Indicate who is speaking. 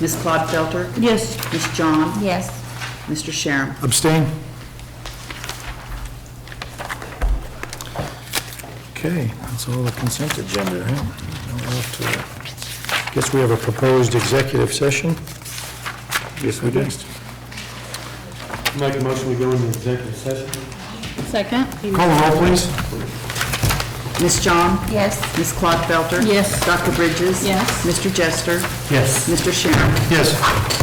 Speaker 1: Ms. Claude Felter?
Speaker 2: Yes.
Speaker 1: Ms. John?
Speaker 2: Yes.
Speaker 1: Mr. Sharon?
Speaker 3: Abstain? Okay, that's all the consent agenda, right? Now we're off to it. Guess we have a proposed executive session? Yes, we do.
Speaker 4: Make a motion, we go into executive session.
Speaker 2: Second?
Speaker 3: Call the roll, please.
Speaker 1: Ms. John?
Speaker 2: Yes.
Speaker 1: Ms. Claude Felter?
Speaker 2: Yes.
Speaker 1: Dr. Bridges?
Speaker 2: Yes.
Speaker 1: Mr. Jester?
Speaker 4: Yes.
Speaker 1: Mr. Sharon?
Speaker 3: Yes.